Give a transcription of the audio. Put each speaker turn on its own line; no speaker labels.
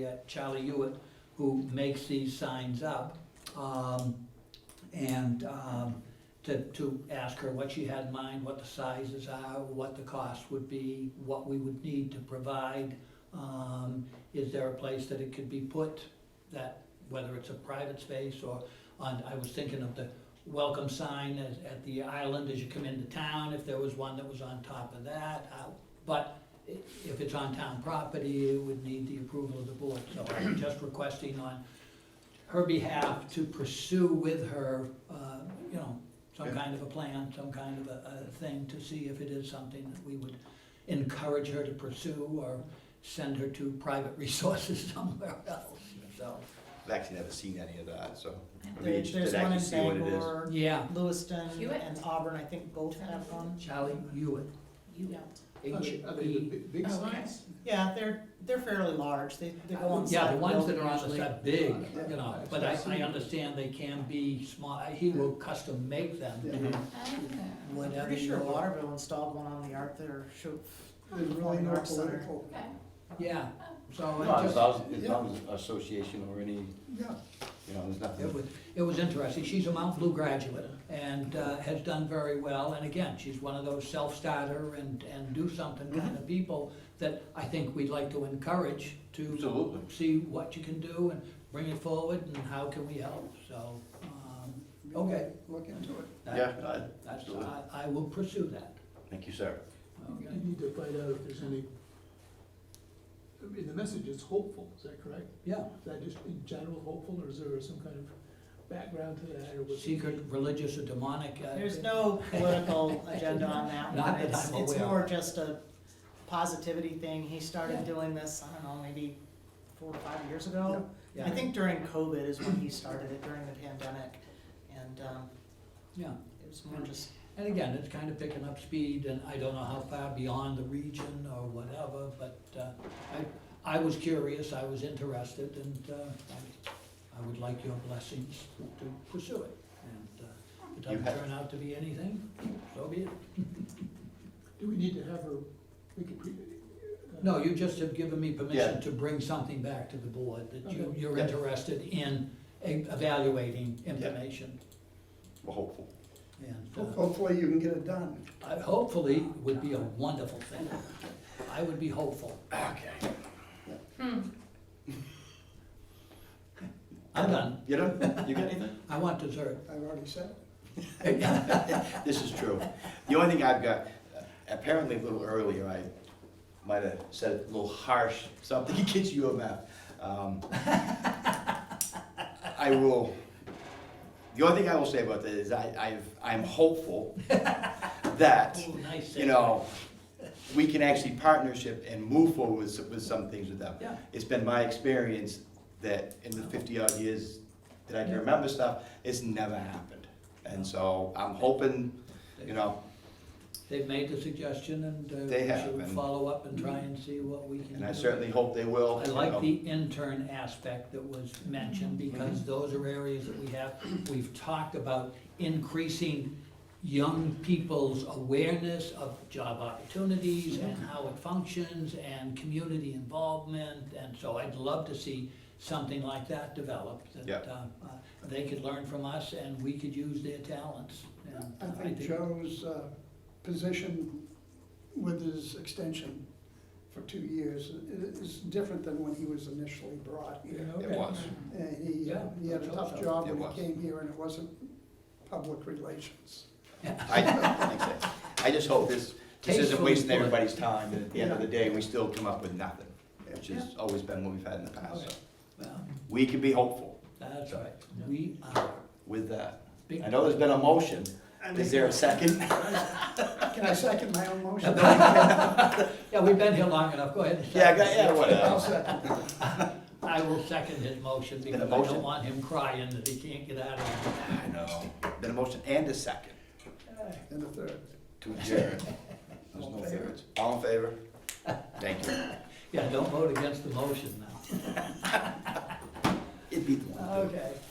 uh, Charlie Hewitt, who makes these signs up, um, and, um, to, to ask her what she had in mind, what the sizes are, what the cost would be, what we would need to provide. Um, is there a place that it could be put, that, whether it's a private space or on, I was thinking of the welcome sign at, at the island as you come into town, if there was one that was on top of that. uh, But if it's on town property, it would need the approval of the board. So I'm just requesting on her behalf to pursue with her, uh, you know, some
Okay.
kind of a plan, some kind of a, a thing to see if it is something that we would encourage her to pursue or send her to private resources somewhere else, so,
I've actually never seen any of that, so. I'd be
There-
interested
There's
to
one
actually
in
see what it is.
Bangor,
yeah.
Lewiston,
Hewitt?
and Auburn, I think both have one.
Charlie Hewitt,
You don't.
Are
E
they- are they the
H-E-
bi- big
Oh, okay.
signs?
Yeah, they're, they're fairly large, they, they go on
Oh, Yeah,
side
the ones that are on the
usually.
side, big, you know, but I, I understand they can be small, he will custom make them.
Yeah.
I'm
whatever.
pretty sure
you-
Waterville installed one on the art there, shoot,
They're really
Or
not
North Center.
political.
Okay,
Yeah, so
No,
I
it's
just,
not, it's not an association or any,
Yeah,
you know, there's
it
nothing.
was, it was interesting. She's a Mount Blue graduate and uh, has done very well. And again, she's one of those self-starter and, and do something kind of people that I think we'd like to encourage to
Absolutely.
see what you can do and bring it forward and how can we help, so. um, Okay.
Look into it.
that-
Yeah, I-
That's,
absolutely.
I, I will pursue that.
Thank you, sir.
You need to find out if there's any, I mean, the message is hopeful, is that correct?
Yeah,
Is that just in general hopeful, or is there some kind of background to that, or was it?
secret, religious or demonic. uh,
there's no political agenda on that
Not
one,
that
it's,
I'm
it's
aware of.
more just a positivity thing, he
Yeah.
started doing this, I don't know, maybe four or five years ago.
Yeah.
I think during COVID is when he started it, during the pandemic, and, um,
Yeah.
it was more just
And again, it's kind of picking up speed, and I don't know how far beyond the region or whatever, but uh, I, I was curious, I was interested, and uh, I- I would like your blessings to pursue it. And uh, if it
You
doesn't
have-
turn out to be anything, so be it.
Do we need to have her, make it pre?
No, you just have given me
Yeah.
permission to bring something back to the board, that you,
Okay.
you're
Yeah.
interested in e- evaluating information.
We're hopeful.
And uh,
Hopefully you can get it done.
I- Uh, hopefully, would be a wonderful thing. I would be hopeful.
Okay.
I'm done.
You know, you got anything?
I want dessert.
I've already said it.
This is true. The only thing I've got, uh, apparently a little earlier, I might have said a little harsh, something against U of F. Um, I will, the only thing I will say about that is I, I've, I'm hopeful that
Oh, nice.
you know, we can actually partnership and move forward with, some- with some things with them.
Yeah.
It's been my experience that in the fifty odd years that I can remember stuff, it's never happened. And so I'm hoping, you know,
They've made the suggestion and uh,
They
we
have,
should
and-
follow up and try and see what we can do.
and I certainly hope they will.
I
you
like
know.
the intern aspect that was mentioned
Mhm.
Mhm.
because those are areas that we have, we've talked about increasing young people's awareness of job opportunities and how it functions and community involvement. And so I'd love to see something like that develop,
Yeah.
that um, uh, they could learn from us and we could use their talents. And,
I
uh,
think Joe's uh, position with his extension for two years i- is different than when he was initially brought
Yeah,
here.
It
okay.
was,
And he,
Yeah,
he had a tough
that's
job
It
when
was.
he came here, and it wasn't public relations.
I, thanks, Ed. I just hope this, this isn't
Tastefully
wasting
put.
everybody's time, and at the end of the day, we still come up with nothing, which has always been what we've had in the past, so.
Okay. Well,
We can be hopeful
That's right, we are.
with that.
big-
I know there's been a motion, is there a second?
Can I second my own motion?
Yeah, we've been here long enough, go ahead.
Yeah, I got- yeah,
I'll
whatever.
second.
I will second his motion because I
motion?
don't want him crying that he can't get out of
I know. Been a motion and a second
it.
And a third.
to adjourn. There's
All
no
in favor?
favorites. All in favor? Thank you.
Yeah, don't vote against the motion now.
It beat the one.
Okay.